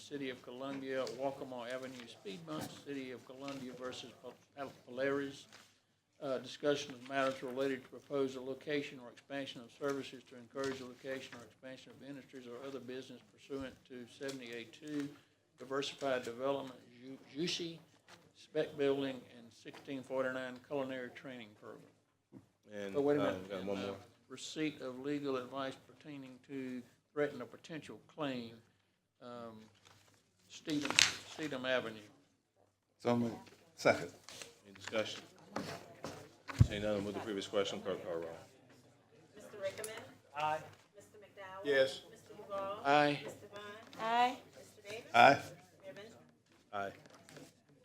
City of Columbia, Walkmore Avenue speed bumps, City of Columbia versus Pol- Polaris. Uh, Discussion of matters related to proposal location or expansion of services to encourage the location or expansion of industries or other business pursuant to 782 Diversified Development Ju- Juicy Spec Building and 1649 Culinary Training Program. And, Oh, wait a uh, minute. we got one And, uh, more. Receipt of legal advice pertaining to threaten a potential claim, um, Stedham, Stedham Avenue. So moved. Second. Any discussion? Seeing none, move the previous question, clerk call roll. Mr. Rickman. Aye. Mr. McDowell. Yes. Mr. McGraw. Aye. Mr. Vaughn. Aye. Mr. Davis. Aye. Mayor Benjamin. Aye.